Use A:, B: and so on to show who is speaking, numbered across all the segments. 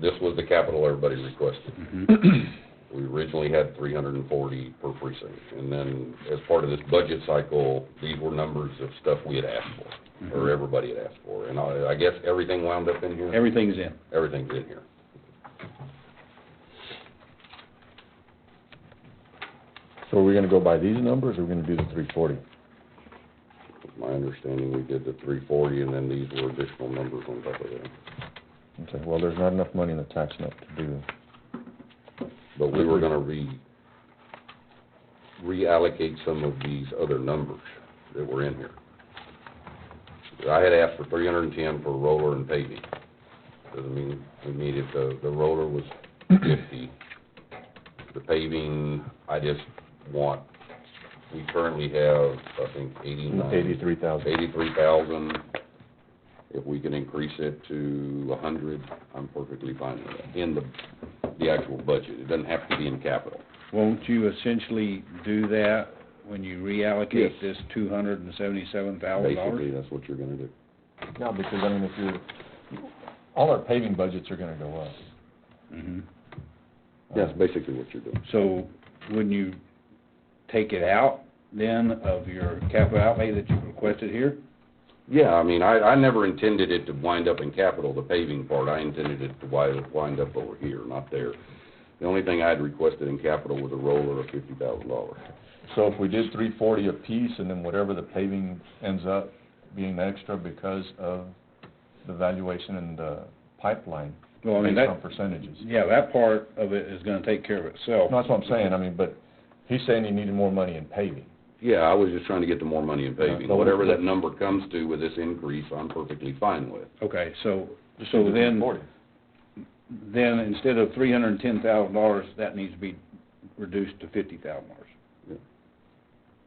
A: this was the capital everybody requested.
B: Mhm.
C: Mm-hmm.
A: We originally had three hundred and forty per precinct, and then as part of this budget cycle, these were numbers of stuff we had asked
C: Mm-hmm.
A: for, or everybody had asked for, and I, I guess everything wound up in here?
B: Everything's in.
A: Everything's in here.
C: So are we gonna go by these numbers, or are we gonna do the three forty?
A: My understanding, we did the three forty, and then these were additional numbers on top of that.
C: Okay, well, there's not enough money in the tax note to do,
A: But we were gonna re, reallocate some of these other numbers that were in here. I had asked for three hundred and ten for roller and paving. Doesn't mean we needed, the, the roller was fifty. The paving, I just want, we currently have, I think, eighty-nine.
C: eighty-three thousand.
A: Eighty-three thousand. If we can increase it to a hundred, I'm perfectly fine with that, in the, the actual budget. It doesn't have to be in capital.
B: Won't you essentially do that when you reallocate
A: Yes.
B: this two hundred and seventy-seven thousand
A: Basically,
B: dollars? Oh.
A: that's what you're gonna do.
C: Yeah, because I mean, if you're, all our paving budgets are gonna go up. Um,
B: Mm-hmm.
A: That's basically what you're doing.
B: So wouldn't you take it out then of your capital outlay that you requested here?
A: Yeah, I mean, I, I never intended it to wind up in capital, the paving part. I intended it to wind, wind up over here, not there. The only thing I'd requested in capital was a roller of fifty thousand dollars.
C: So if we did three forty apiece, and then whatever the paving ends up being extra because of the valuation and the pipeline,
B: Well, I mean,
C: based on
B: that,
C: percentages.
B: yeah, that part of it is gonna take care of itself.
C: No, that's what I'm saying, I mean, but he's saying he needed more money in paving.
A: Yeah, I was just trying to get the more money in paving.
C: but-
A: Whatever that number comes to with this increase, I'm perfectly fine with.
B: Okay, so, so then,
C: 340.
B: then instead of three hundred and ten thousand dollars, that needs to be reduced to fifty thousand dollars.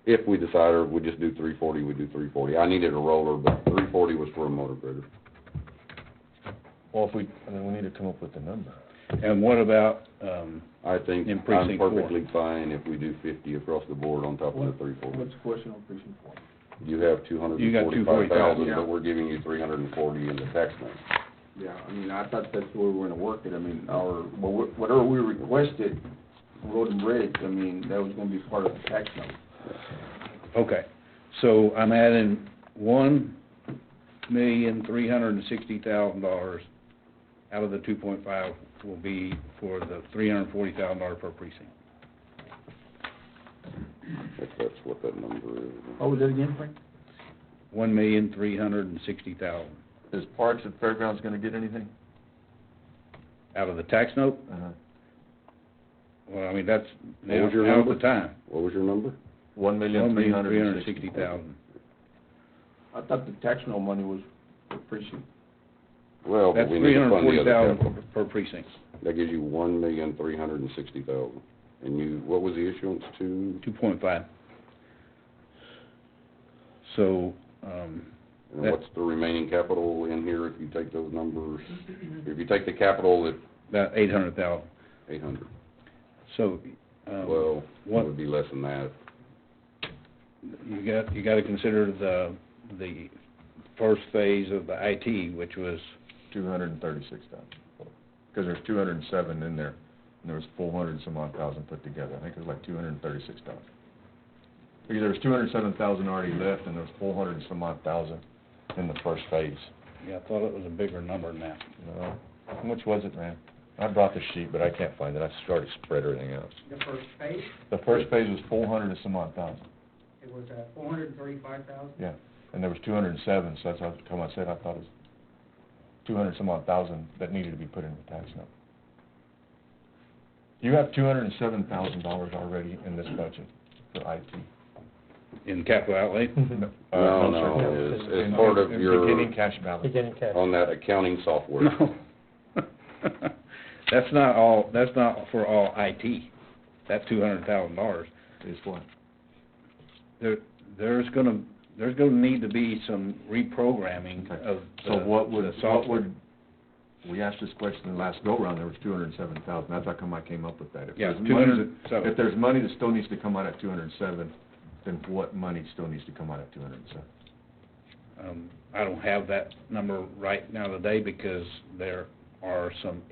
A: If we decide, or if we just do three forty, we do three forty. I needed a roller, but three forty was for a motor grader.
C: Well, if we, I mean, we need to come up with a number.
B: And what about, um,
A: I think
B: In
A: I'm
B: precinct four.
A: perfectly fine if we do fifty across the board on top of the three forty.
D: What's the question on precinct four?
A: You have two hundred
B: You
A: and
B: got
A: forty-five thousand,
D: 245,000, yeah.
A: but we're giving you three hundred and forty in the tax note.
D: Yeah, I mean, I thought that's where we were gonna work it, I mean, our, what- whatever we requested, road and bridge, I mean, that was gonna be part of the tax note.
B: okay, so I'm adding one million, three hundred and sixty thousand dollars out of the two point five will be for the three hundred and forty thousand dollar per precinct.
A: If that's what that number is.
D: What was that again, Frank?
B: One million, three hundred and sixty thousand
C: Is Parks and Fairgrounds gonna get anything? Uh-huh.
B: out of the tax note, well, I mean, that's,
A: What
B: now,
A: was your
B: out of
A: number?
B: the time.
A: What was your number?
C: One
B: One million, three hundred and sixty thousand.
D: I thought the tax note money was for precinct.
A: Well,
B: That's
A: but we need
B: three
A: to
B: hundred and
A: fund the
B: forty
A: other capital.
B: thousand per precinct,
A: That gives you one million, three hundred and sixty thousand. And you, what was the issuance to,
B: two point five. So, um,
A: and
B: That-
A: what's the remaining capital in here if you take those numbers? If you take the capital at
B: about eight hundred thousand,
A: eight hundred,
B: so, um,
A: well, it
B: what-
A: would be less than that.
B: you got, you gotta consider the, the first phase of the IT, which was,
C: Two hundred and thirty-six thousand, because there's two hundred and seven in there, and there was four hundred and some odd thousand put together, I think it was like two hundred and thirty-six thousand. Because there was two hundred and seven thousand already left, and there was four hundred and some odd thousand in the first phase.
B: yeah, I thought it was a bigger number than that.
C: No, how much was it, man? I brought the sheet, but I can't find it, I started to spread everything out.
E: The first phase,
C: The first phase was four hundred and some odd thousand,
E: it was uh, 435,000.
C: yeah, and there was two hundred and seven, so that's how come I said I thought it was two hundred some odd thousand that needed to be put in the tax note. You have two hundred and seven thousand dollars already in this budget for IT.
B: In capital outlay,
C: No, uh,
A: No,
C: sir.
A: no, it's- it's
C: In-
A: part of
C: in
A: your-
C: Beginning cash balance.
F: Beginning cash.
A: On that accounting software.
B: no. That's not all, that's not for all IT, that's two hundred thousand dollars.
C: Is what?
B: there, there's gonna, there's gonna need to be some reprogramming
C: Okay.
B: of
C: So
B: the-
C: what
B: the
C: would, what
B: software.
C: would, we asked this question the last go-round, there was two hundred and seven thousand, that's how come I came up with that. If
B: Yeah,
C: there's money that-
B: 207.
C: If there's money that still needs to come out at two hundred and seven, then what money still needs to come out at two hundred and seven?
B: Um, I don't have that number right now today because there are some